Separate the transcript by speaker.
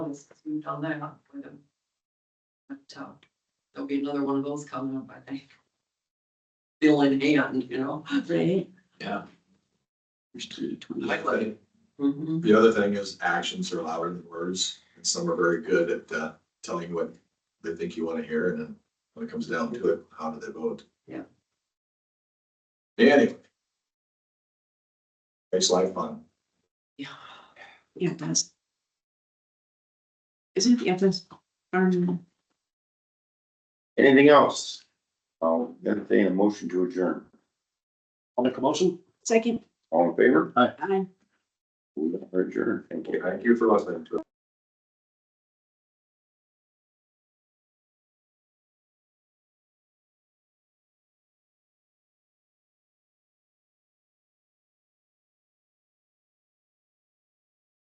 Speaker 1: else has moved on there with them. But, uh, there'll be another one of those coming up, I think. Bill in hand, you know?
Speaker 2: Right.
Speaker 3: Yeah.
Speaker 1: There's twenty
Speaker 3: Like, like,
Speaker 1: Mm-hmm.
Speaker 3: The other thing is actions are louder than words, and some are very good at uh, telling you what they think you want to hear, and then when it comes down to it, how do they vote?
Speaker 1: Yeah.
Speaker 3: Anyway. Makes life fun.
Speaker 1: Yeah.
Speaker 2: Yeah, it does. Isn't the FS, um,
Speaker 4: Anything else? I'll entertain a motion to adjourn.
Speaker 5: I'll make a motion.
Speaker 2: second,
Speaker 4: All in favor?
Speaker 2: I
Speaker 4: We are adjourned. Thank you.
Speaker 3: Thank you for listening to us.